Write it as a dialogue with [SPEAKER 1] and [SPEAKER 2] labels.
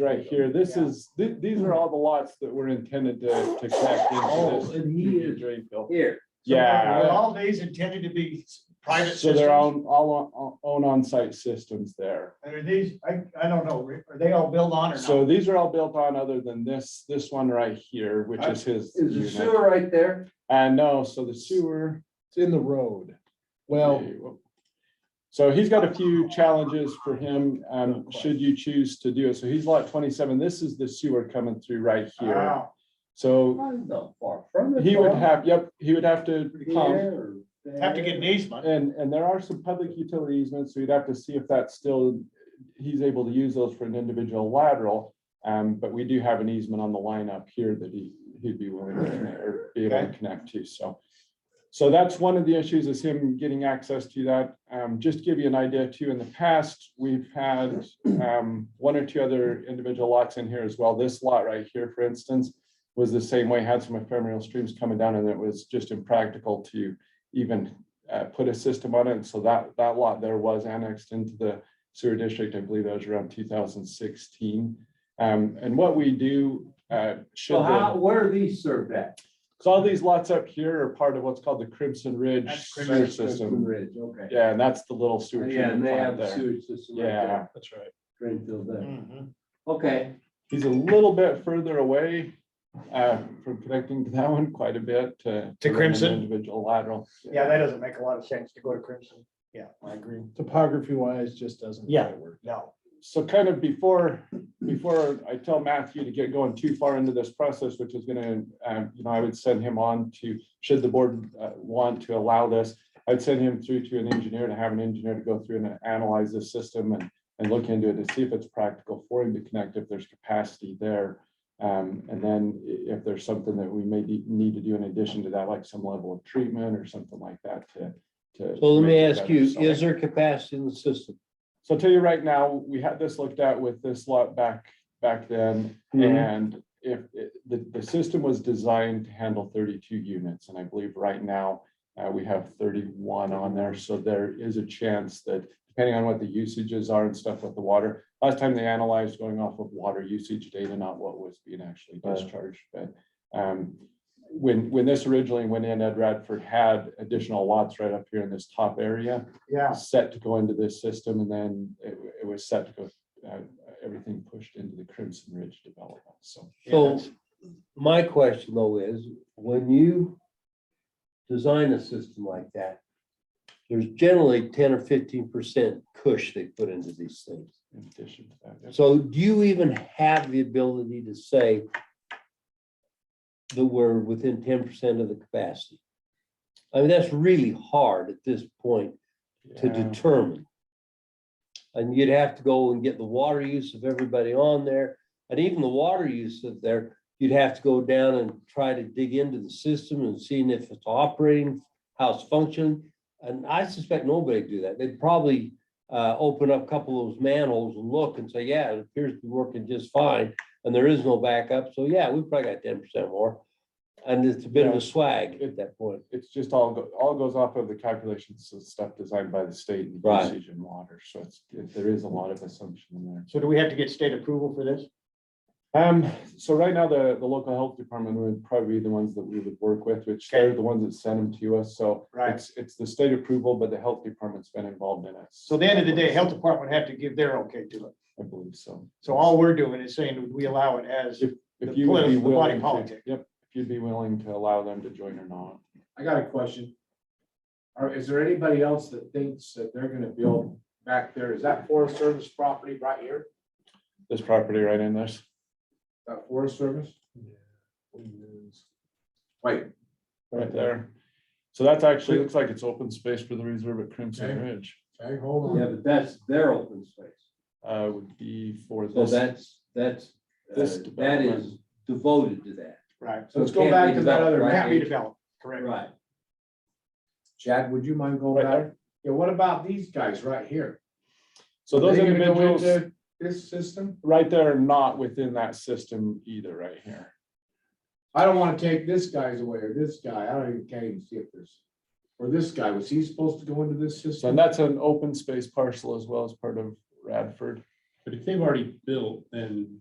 [SPEAKER 1] right here, this
[SPEAKER 2] Yeah.
[SPEAKER 1] is, thi- these are all the lots that were intended to, to connect
[SPEAKER 3] Oh,
[SPEAKER 1] into this.
[SPEAKER 3] and he is,
[SPEAKER 1] drain field.
[SPEAKER 2] Here.
[SPEAKER 1] Yeah.
[SPEAKER 2] Were all these intended to be s- private
[SPEAKER 1] So they're
[SPEAKER 2] systems?
[SPEAKER 1] on, all on, on site systems there.
[SPEAKER 2] And Are these, I, I don't know, Rick, are they all built on or not?
[SPEAKER 1] So these are all built on other than this, this one right here, which is his.
[SPEAKER 3] is the
[SPEAKER 1] unit.
[SPEAKER 3] sewer right there?
[SPEAKER 1] And no, so the sewer.
[SPEAKER 4] It's in the road. Well,
[SPEAKER 1] So he's got a few challenges for him, um, should you choose to do it. So he's lot twenty-seven. This is the sewer coming through right here.
[SPEAKER 2] Wow.
[SPEAKER 1] So
[SPEAKER 3] Not that far from the
[SPEAKER 1] he would
[SPEAKER 3] farm,
[SPEAKER 1] have, yep, he would have to pump.
[SPEAKER 3] there,
[SPEAKER 2] Have to get an
[SPEAKER 3] there.
[SPEAKER 2] easement.
[SPEAKER 1] And, and there are some public utility easements, so you'd have to see if that's still, he's able to use those for an individual lateral. Um, but we do have an easement on the line up here that he, he'd be willing to connect, or be able to connect to, so. So that's one of the issues is him getting access to that. Um, just to give you an idea too, in the past, we've had, um, one or two other individual lots in here as well. This lot right here, for instance, was the same way, had some ephemeral streams coming down and it was just impractical to even uh, put a system on it. And so that, that lot there was annexed into the sewer district. I believe that was around two thousand sixteen. Um, and what we do, uh, should.
[SPEAKER 3] So
[SPEAKER 1] the-
[SPEAKER 3] how, where are these served at?
[SPEAKER 1] so all these lots up here are part of what's called the Crimson Ridge
[SPEAKER 2] That's Crimson
[SPEAKER 1] sewer
[SPEAKER 3] That's Crimson
[SPEAKER 1] system.
[SPEAKER 3] Ridge, okay.
[SPEAKER 1] Yeah, and that's the little sewer
[SPEAKER 3] Yeah,
[SPEAKER 1] treatment
[SPEAKER 3] and they
[SPEAKER 1] plant
[SPEAKER 3] have a
[SPEAKER 1] there.
[SPEAKER 3] sewage system right
[SPEAKER 1] Yeah, Mm.
[SPEAKER 3] there,
[SPEAKER 2] That's right.
[SPEAKER 3] Greenfield there.
[SPEAKER 2] Mhm.
[SPEAKER 3] Okay,
[SPEAKER 1] he's a little bit further away uh, from connecting to that one quite a bit to.
[SPEAKER 2] To
[SPEAKER 1] run an
[SPEAKER 2] Crimson?
[SPEAKER 1] Individual lateral.
[SPEAKER 2] Yeah, that doesn't make a lot of sense to go to Crimson. Yeah, I agree.
[SPEAKER 4] topography wise, just doesn't.
[SPEAKER 2] Yeah.
[SPEAKER 4] quite work.
[SPEAKER 2] No.
[SPEAKER 1] So kind of before, before I tell Matthew to get going too far into this process, which is gonna, um, you know, I would send him on to, should the board uh, want to allow this, I'd send him through to an engineer to have an engineer to go through and analyze this system and, and look into it to see if it's practical for him to connect, if there's capacity there. Um, and then i- if there's something that we may be- need to do in addition to that, like some level of treatment or something like that to, to.
[SPEAKER 5] So let me
[SPEAKER 1] make it
[SPEAKER 5] ask
[SPEAKER 1] better.
[SPEAKER 5] you,
[SPEAKER 1] So-
[SPEAKER 5] is there capacity in the system?
[SPEAKER 1] so I'll tell you right now, we had this looked at with this lot back, back then. And if, it- the, the system was designed to handle thirty-two units, and I believe right now, uh, we have thirty-one on there, so there is a chance that depending on what the usages are and stuff with the water, last time they analyzed going off of water usage data, not what was being actually
[SPEAKER 5] Right.
[SPEAKER 1] discharged, but, um, when, when this originally went in, Ed Radford had additional lots right up here in this top area
[SPEAKER 2] Yeah.
[SPEAKER 1] set to go into this system and then it, wa- it was set to go, uh, everything pushed into the Crimson Ridge development, so.
[SPEAKER 5] So my question though is, when you design a system like that, there's generally ten or fifteen percent cush they put into these things.
[SPEAKER 1] In addition to that, yeah.
[SPEAKER 5] So do you even have the ability to say that we're within ten percent of the capacity? I mean, that's really hard at this point to
[SPEAKER 1] Yeah.
[SPEAKER 5] determine. And you'd have to go and get the water use of everybody on there, and even the water use of there, you'd have to go down and try to dig into the system and seeing if it's operating, how it's functioning. And I suspect nobody would do that. They'd probably uh, open up a couple of those manholes and look and say, yeah, it appears to be working just fine, and there is no backup, so yeah, we probably got ten percent more. And it's a bit of
[SPEAKER 1] Yeah.
[SPEAKER 5] a swag
[SPEAKER 1] It-
[SPEAKER 5] at that point.
[SPEAKER 1] It's just all, go- all goes off of the calculations and stuff designed by the state and
[SPEAKER 5] Right.
[SPEAKER 1] usage and water, so it's, it- there is a lot of assumption in there.
[SPEAKER 2] So do we have to get state approval for this?
[SPEAKER 1] Um, so right now, the, the local health department would probably be the ones that we would work with, which they're the ones that send them to us, so.
[SPEAKER 2] Right.
[SPEAKER 1] It's, it's the state approval, but the health department's been involved in it.
[SPEAKER 2] So at the end of the day, health department have to give their okay to it.
[SPEAKER 1] I believe so.
[SPEAKER 2] So all we're doing is saying, would we allow it as,
[SPEAKER 1] If
[SPEAKER 2] The
[SPEAKER 1] you would be
[SPEAKER 2] politi- the body
[SPEAKER 1] willing, to-
[SPEAKER 2] politic.
[SPEAKER 1] yep, if you'd be willing to allow them to join or not.
[SPEAKER 4] I got a question. Or is there anybody else that thinks that they're gonna build back there? Is that Forest Service property right here?
[SPEAKER 1] This property right in this,
[SPEAKER 4] That Forest Service? Wait,
[SPEAKER 1] right there. So that's actually, looks like it's open space for the reserve at Crimson
[SPEAKER 4] Okay.
[SPEAKER 1] Ridge.
[SPEAKER 4] okay, hold
[SPEAKER 5] Yeah,
[SPEAKER 4] on.
[SPEAKER 5] but that's their open space.
[SPEAKER 1] Uh, would be for
[SPEAKER 5] So
[SPEAKER 1] this.
[SPEAKER 5] that's, that's, uh,
[SPEAKER 1] This
[SPEAKER 5] that
[SPEAKER 1] development.
[SPEAKER 5] is devoted to that.
[SPEAKER 2] right?
[SPEAKER 4] So let's
[SPEAKER 5] it
[SPEAKER 4] go
[SPEAKER 5] can't be
[SPEAKER 4] back to that
[SPEAKER 5] developed,
[SPEAKER 4] other
[SPEAKER 5] right?
[SPEAKER 4] map.
[SPEAKER 2] Can't be developed, correct?
[SPEAKER 5] Right.
[SPEAKER 4] Chad, would you mind going
[SPEAKER 1] Right
[SPEAKER 4] back?
[SPEAKER 1] there.
[SPEAKER 4] Yeah, what about these guys right here?
[SPEAKER 1] So those
[SPEAKER 4] Are they gonna go
[SPEAKER 1] individuals
[SPEAKER 4] into This system?
[SPEAKER 1] right there are not within that system either right here.
[SPEAKER 4] I don't wanna take this guy's away or this guy. I don't even, can't even see if there's. Or this guy, was he supposed to go into this
[SPEAKER 1] So and
[SPEAKER 4] system?
[SPEAKER 1] that's an open space parcel as well as part of Radford.
[SPEAKER 6] But if they've already built, then